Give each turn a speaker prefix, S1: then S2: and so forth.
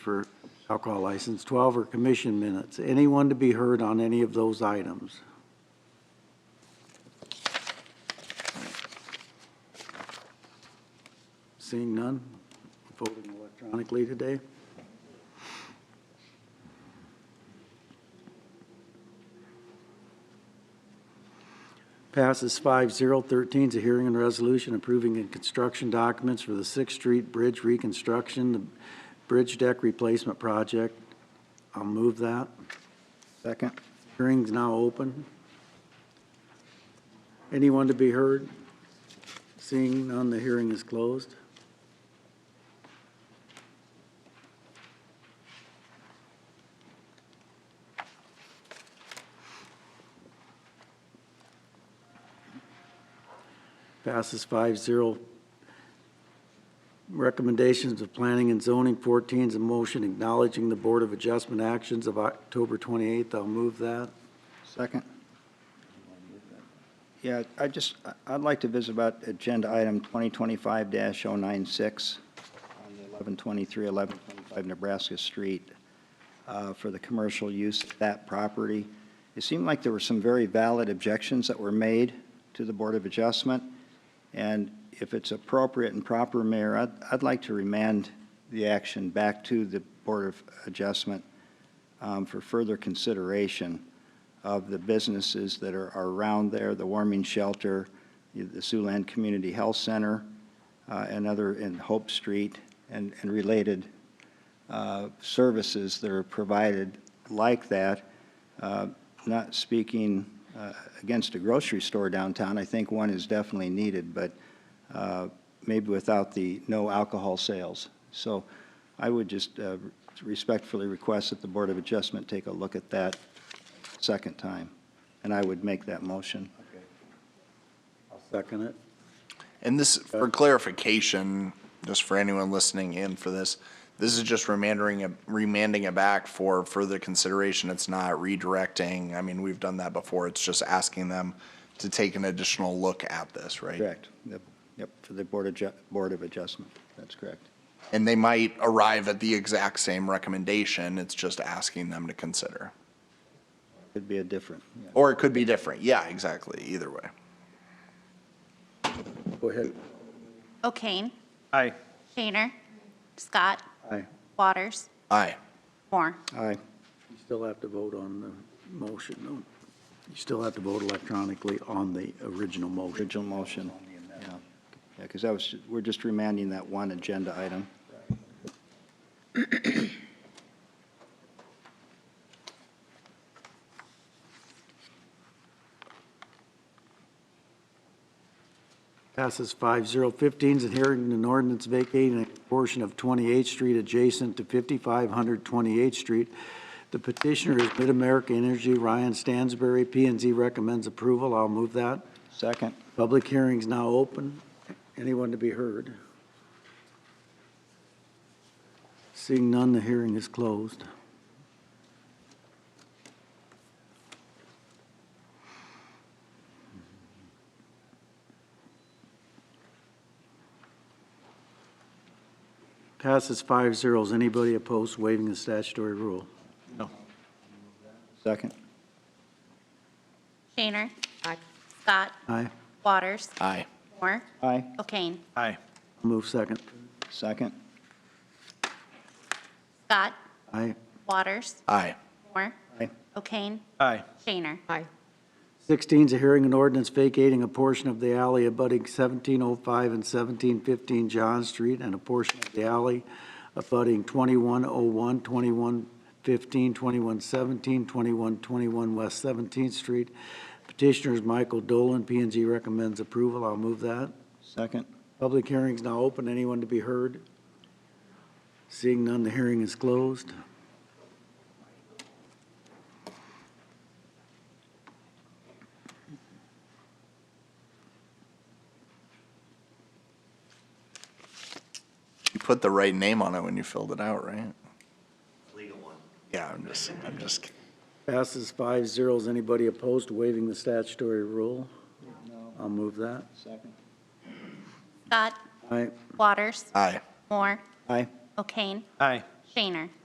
S1: for alcohol license. 12 are commission minutes. Anyone to be heard on any of those items? Seeing none, voting electronically today. Passes 5-0. 13 is a hearing and resolution approving in construction documents for the Sixth Street Bridge reconstruction, the bridge deck replacement project. I'll move that.
S2: Second.
S1: Hearing's now open. Anyone to be heard? Seeing none, the hearing is closed. Passes 5-0. Recommendations of Planning and Zoning, 14 is a motion acknowledging the Board of Adjustment actions of October 28th. I'll move that.
S2: Second. Yeah, I just, I- I'd like to visit about agenda item 2025-096 on the 1123, 1125 Nebraska Street uh, for the commercial use of that property. It seemed like there were some very valid objections that were made to the Board of Adjustment. And if it's appropriate and proper, Mayor, I'd, I'd like to remand the action back to the Board of Adjustment um, for further consideration of the businesses that are, are around there, the warming shelter, the Siouxland Community Health Center, uh, and other, in Hope Street, and, and related uh, services that are provided like that. Uh, Not speaking uh, against a grocery store downtown, I think one is definitely needed, but uh, maybe without the no alcohol sales. So I would just uh, respectfully request that the Board of Adjustment take a look at that second time, and I would make that motion.
S1: I'll second it.
S3: And this, for clarification, just for anyone listening in for this, this is just remanding, it- remanding it back for further consideration. It's not redirecting. I mean, we've done that before. It's just asking them to take an additional look at this, right?
S2: Correct. Yep, yep, for the Board of, Ju- Board of Adjustment, that's correct.
S3: And they might arrive at the exact same recommendation. It's just asking them to consider.
S2: Could be a different, yeah.
S3: Or it could be different. Yeah, exactly. Either way.
S1: Go ahead.
S4: O'Kane.
S5: Aye.
S4: Shaner. Scott.
S1: Aye.
S4: Waters.
S3: Aye.
S4: Moore.
S2: Aye,
S1: You still have to vote on the motion, though. You still have to vote electronically on the original motion.
S2: original motion. Yeah, because that was, we're just remanding that one agenda item.
S1: Passes 5-0. 15 is a hearing and ordinance vacating a portion of 28th Street adjacent to 5500 28th Street. The petitioner is Mid-America Energy, Ryan Stansberry. p and Z recommends approval. I'll move that.
S2: Second,
S1: Public hearing's now open. Anyone to be heard? Seeing none, the hearing is closed. Passes five zeros. Anybody opposed to waiving the statutory rule?
S2: second,
S4: Shaner. Scott.
S1: Aye.
S4: Waters.
S3: Aye.
S4: Moore.
S2: aye,
S4: O'Kane.
S5: Aye.
S1: Move second.
S2: second,
S4: Scott.
S1: Aye.
S4: Waters.
S3: Aye.
S4: Moore.
S2: aye,
S4: O'Kane.
S5: Aye.
S4: Shaner.
S6: Aye.
S1: 16 is a hearing and ordinance vacating a portion of the alley abutting 1705 and 1715 John Street and a portion of the alley abutting 2101, 2115, 2117, 2121 West 17th Street. Petitioner is Michael Dolan. p and Z recommends approval. I'll move that.
S2: second,
S1: Public hearing is now open. Anyone to be heard? Seeing none, the hearing is closed.
S3: You put the right name on it when you filled it out, right? Legal one. Yeah, I'm just, I'm just kidding.
S1: Passes five zeros. Anybody opposed to waiving the statutory rule? No. I'll move that.
S2: second,
S4: Scott.
S1: Aye.
S4: Waters.
S3: Aye.
S4: Moore.
S2: aye,
S4: O'Kane.
S5: Aye.
S4: Shaner.